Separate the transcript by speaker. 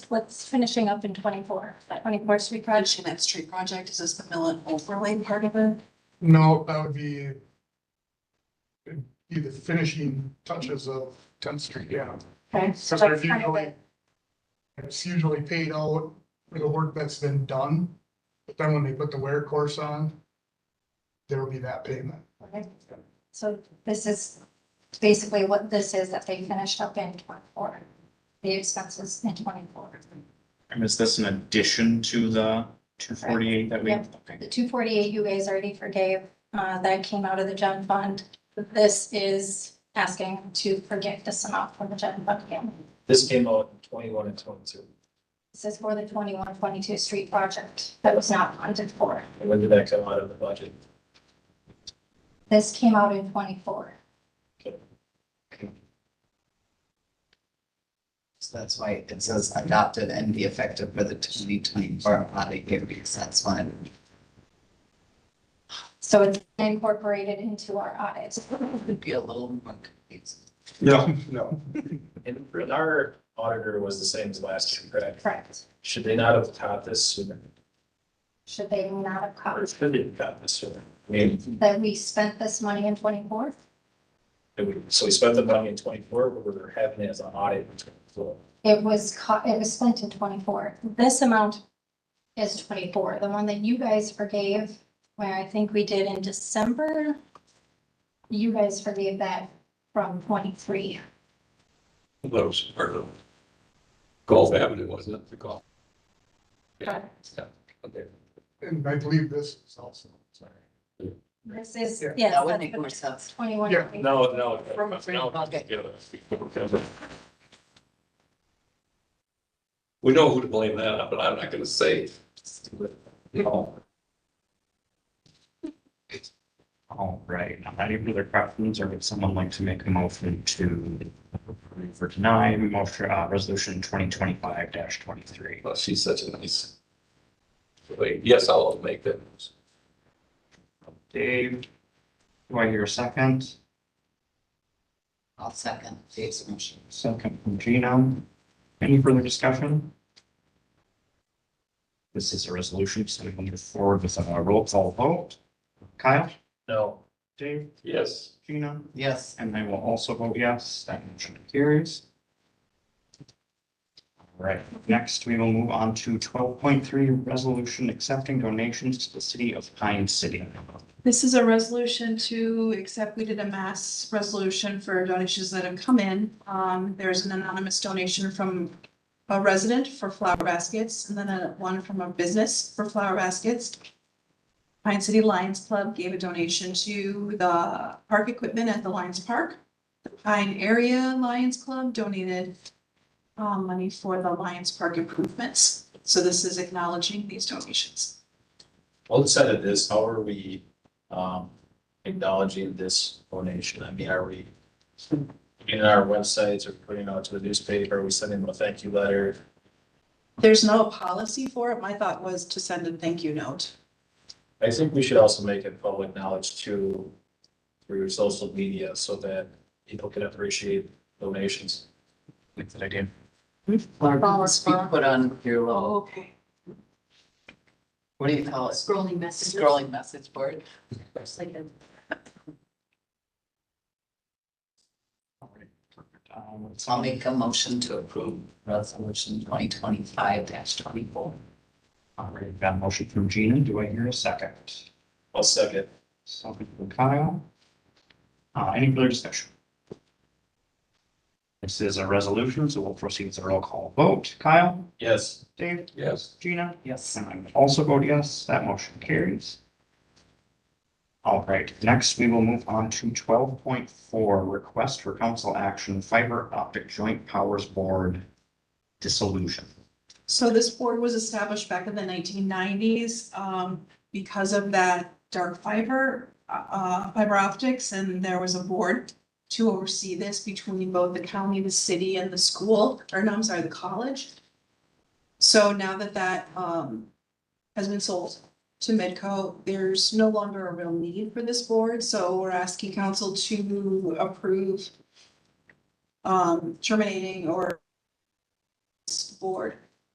Speaker 1: what's finishing up in twenty-four, that twenty-four street project.
Speaker 2: Finishing that street project, is this the Millen overlay part of it?
Speaker 3: No, that would be be the finishing touches of tenth street, yeah.
Speaker 1: Okay, so
Speaker 3: So
Speaker 1: that's
Speaker 3: they're
Speaker 1: kind of
Speaker 3: usually-
Speaker 1: it.
Speaker 3: It's usually paid out for the work that's been done, but then when they put the wear course on, there will be that payment.
Speaker 1: Okay. So this is basically what this is that they finished up in twenty-four, the expenses in twenty-four.
Speaker 4: And is this an addition to the two forty-eight that we?
Speaker 1: Yep. The two forty-eight you guys already forgave, uh, that came out of the gen fund. This is asking to forgive this amount from the gen fund again.
Speaker 5: This came out in twenty-one and twenty-two.
Speaker 1: This is for the 21-22 street project that was not funded for.
Speaker 5: And When did that come out of the budget?
Speaker 1: This came out in twenty-four.
Speaker 6: So that's why it says adopted and be effective for the twenty twenty-four audit year, because that's when
Speaker 1: So it's incorporated into our audit.
Speaker 6: it would be a little more confusing.
Speaker 3: Yeah. No.
Speaker 5: And our auditor was the same as last year, correct?
Speaker 1: Correct.
Speaker 5: Should they not have caught this sooner?
Speaker 1: Should they not have
Speaker 5: Or
Speaker 1: caught
Speaker 5: should they have caught this sooner? I mean,
Speaker 1: that we spent this money in twenty-four?
Speaker 5: it would- so we spent the money in twenty-four, but we were having it as an audit in twenty-four.
Speaker 1: It was caught, it was spent in twenty-four. This amount is twenty-four. The one that you guys forgave, where I think we did in December, you guys forgave that from twenty-three.
Speaker 7: That was part of Gulf Avenue, wasn't it? The Gulf. Yeah. Yeah. Okay.
Speaker 3: And I believe this is also, sorry.
Speaker 1: This is,
Speaker 3: Yeah.
Speaker 1: yes.
Speaker 6: That would make more
Speaker 1: that's-
Speaker 6: sense.
Speaker 1: Twenty-one.
Speaker 3: Yeah,
Speaker 7: No, no.
Speaker 6: From a free
Speaker 7: no,
Speaker 6: pocket.
Speaker 7: yeah, that's- We know who to blame that, on, but I'm not gonna say. No.
Speaker 4: All right, now any further questions, or would someone like to make a motion to approve or deny motion, uh, resolution twenty twenty-five twenty-three?
Speaker 7: Well, uh, she's such a nice. Wait, yes, I'll make that.
Speaker 4: Dave, do I hear a second?
Speaker 6: I'll second Dave's motion.
Speaker 4: Second from Gino. Any further discussion? This is a resolution, so we can move forward with a roll call vote. Kyle?
Speaker 5: No,
Speaker 4: Dave?
Speaker 7: Yes,
Speaker 4: Gino?
Speaker 6: Yes,
Speaker 4: And I will also vote yes, that motion carries. All right, next we will move on to twelve point three, resolution accepting donations to the city of Pine City.
Speaker 2: This is a resolution to accept, we did a mass resolution for donations that have come in. Um, there's an anonymous donation from a resident for flower baskets and then a one from a business for flower baskets. Pine City Lions Club gave a donation to the park equipment at the Lions Park. The Pine Area Lions Club donated um, money for the Lions Park improvements. So this is acknowledging these donations.
Speaker 5: well, outside of this, how are we, um, acknowledging this donation? I mean, are we putting it on our websites or putting it out to the newspaper? Are we sending them a thank you letter?
Speaker 2: There's no policy for it. My thought was to send a thank you note.
Speaker 5: I think we should also make it public knowledge too through social media so that people can appreciate donations.
Speaker 4: That's what I did.
Speaker 6: Laura, speak, put on your little,
Speaker 2: okay.
Speaker 6: what do you call it,
Speaker 8: Scrolling messages.
Speaker 6: scrolling message board?
Speaker 8: It's like a-
Speaker 4: All right, perfect. Um, let's-
Speaker 6: So I'll make a motion to approve resolution twenty twenty-five twenty-four.
Speaker 4: All right, got a motion from Gina, do I hear a second?
Speaker 5: I'll second.
Speaker 4: Second from Kyle. Uh, any further discussion? This is a resolution, so we'll proceed with a roll call vote. Kyle?
Speaker 5: Yes.
Speaker 4: Dave?
Speaker 7: yes.
Speaker 4: Gina?
Speaker 6: Yes.
Speaker 4: And I would also vote yes, that motion carries. All right, next we will move on to twelve point four, request for council action fiber optic joint powers board dissolution.
Speaker 2: So this board was established back in the nineteen nineties, um, because of that dark fiber, uh, uh, fiber optics, and there was a board to oversee this between both the county, the city, and the school, or no, I'm sorry, the college. So now that that, um, has been sold to Medco, there's no longer a real need for this board, so we're asking council to approve um, terminating or this board